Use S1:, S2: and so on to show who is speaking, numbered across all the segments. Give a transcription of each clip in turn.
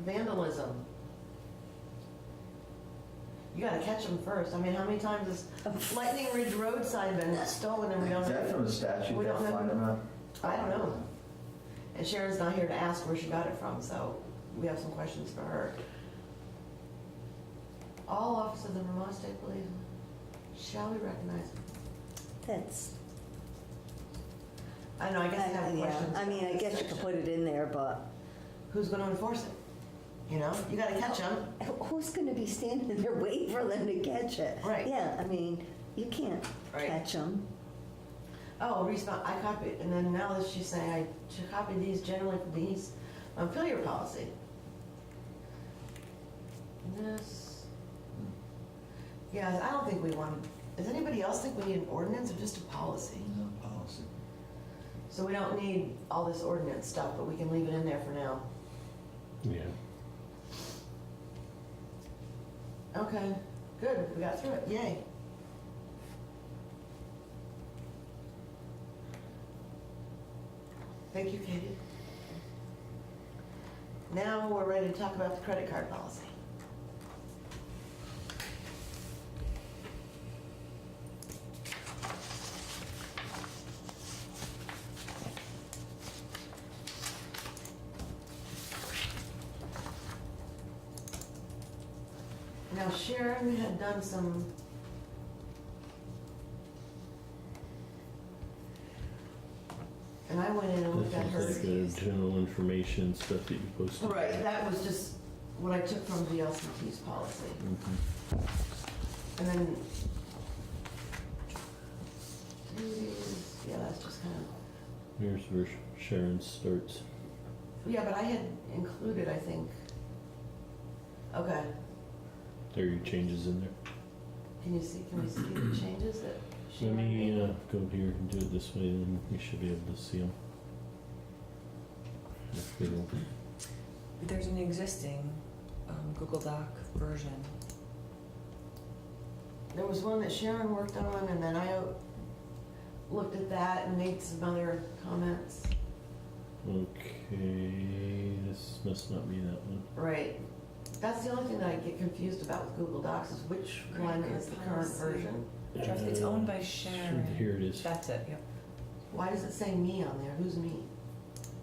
S1: vandalism. You gotta catch them first. I mean, how many times has Lightning Ridge roadside been stolen and we don't?
S2: Is that from a statute
S1: We
S2: that
S1: don't know.
S2: fine amount?
S1: I don't know. And Sharon's not here to ask where she got it from, so we have some questions for her. All officers of Vermont State Police shall be recognized.
S3: That's,
S1: I know, I guess I have
S3: yeah,
S1: questions.
S3: I mean, I guess you could put it in there, but
S1: Who's gonna enforce it? You know, you gotta catch
S3: Oh.
S1: them.
S3: who- who's gonna be standing there waiting for them to catch it?
S1: Right.
S3: Yeah, I mean, you can't
S1: Right.
S3: catch them.
S1: Oh, respond, I copied, and then now that she's saying I should copy these generally from the East Montpelier policy. This. Yeah, I don't think we want, does anybody else think we need an ordinance or just a policy?
S2: No, policy.
S1: So we don't need all this ordinance stuff, but we can leave it in there for now.
S4: Yeah.
S1: Okay, good, we got through it, yay. Thank you, Katie. Now we're ready to talk about the credit card policy. Now Sharon had done some. And I went in
S5: Oh,
S1: and looked at her.
S4: This is like the general information stuff that you posted.
S1: Right, that was just what I took from the LCT's policy. And then. duties, Yeah, that's just kind of,
S4: Here's where Sharon starts.
S1: yeah, but I had included, I think. Okay,
S4: There are your changes in there.
S1: can you see, can we see the changes that she
S4: Let me
S1: made?
S4: uh, go here and do it this way, then we should be able to see them.
S5: There's an existing um, Google Doc version.
S1: There was one that Sharon worked on and then I looked at that and made some other comments.
S4: Okay, this must not be that one.
S1: Right, that's the only thing that I get confused about with Google Docs is which one is the current
S5: Policy.
S1: version?
S5: It's
S4: Uh,
S5: owned by Sharon.
S4: Here it is.
S5: That's it, yep.
S1: Why does it say me on there? Who's me?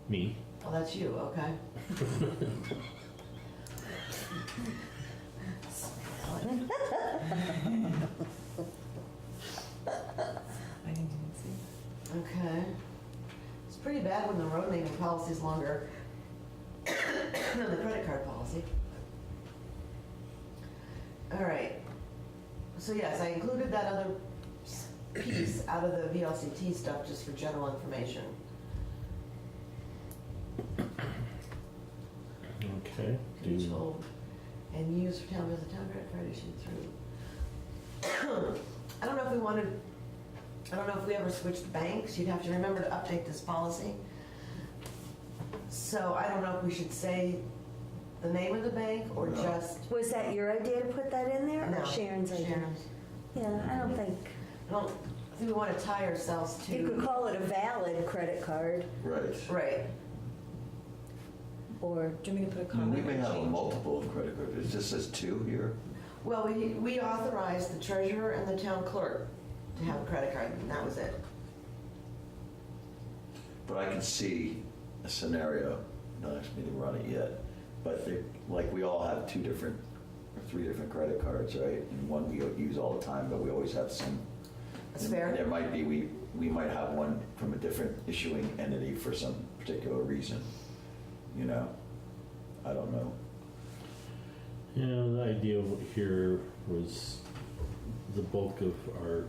S4: Me.
S1: Oh, that's you, okay.
S5: I didn't even see that.
S1: Okay. It's pretty bad when the road naming policy is longer than the credit card policy. All right. So yes, I included that other s- piece out of the VLCT stuff just for general information.
S4: Okay. Do
S1: control and use for town as a town credit card issued through. I don't know if we wanted, I don't know if we ever switched banks, you'd have to remember to update this policy. So I don't know if we should say the name of the bank or
S2: No.
S1: just.
S3: Was that your idea to put that in there? or
S1: No,
S3: Sharon's idea?
S1: Sharon's.
S3: Yeah, I
S5: Mm-hmm.
S3: don't think,
S1: I don't think we want to tie ourselves
S3: you could
S1: to,
S3: call it a valid credit card
S2: Right.
S1: right,
S3: or,
S5: Do you want me to put a
S2: I mean,
S5: comment?
S2: we may
S5: or
S2: have a
S5: change?
S2: multiple of credit card, it just says two here.
S1: well, we, we authorized the treasurer and the town clerk to have a credit card, and that was it.
S2: But I can see a scenario, no, I just need to run it yet, but they, like, we all have two different, or three different credit cards, right? And one we use all the time, but we always have some.
S1: That's fair.
S2: There might be, we, we might have one from a different issuing entity for some particular reason, you know? I don't know.
S4: Yeah, the idea here was the bulk of our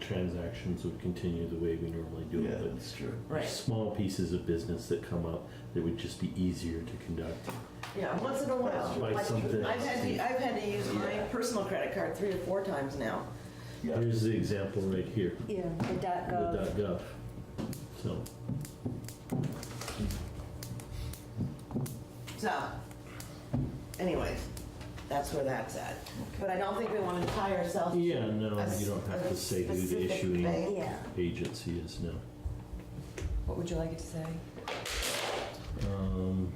S4: transactions would continue the way we normally do
S2: Yeah,
S4: it. but
S2: that's true.
S1: Right.
S4: Small pieces of business that come up that would just be easier to conduct.
S1: Yeah, once in a while.
S4: Like
S1: I've-
S4: something-
S1: I've had, to, I've had to use my
S2: Yeah.
S1: personal credit card three or four times now.
S2: Yeah,
S4: Here's the example right here,
S3: yeah, the dot
S4: the
S3: gov.
S4: .gov. So,
S1: So, anyways, that's where that's at. But I don't think we want to tie ourselves. to
S4: yeah, no,
S1: a s-
S4: you don't have
S1: a
S4: to say who the
S1: specific
S4: issuing
S1: bank.
S3: Yeah,
S4: agency is now.
S5: What would you like it to say?
S4: Um,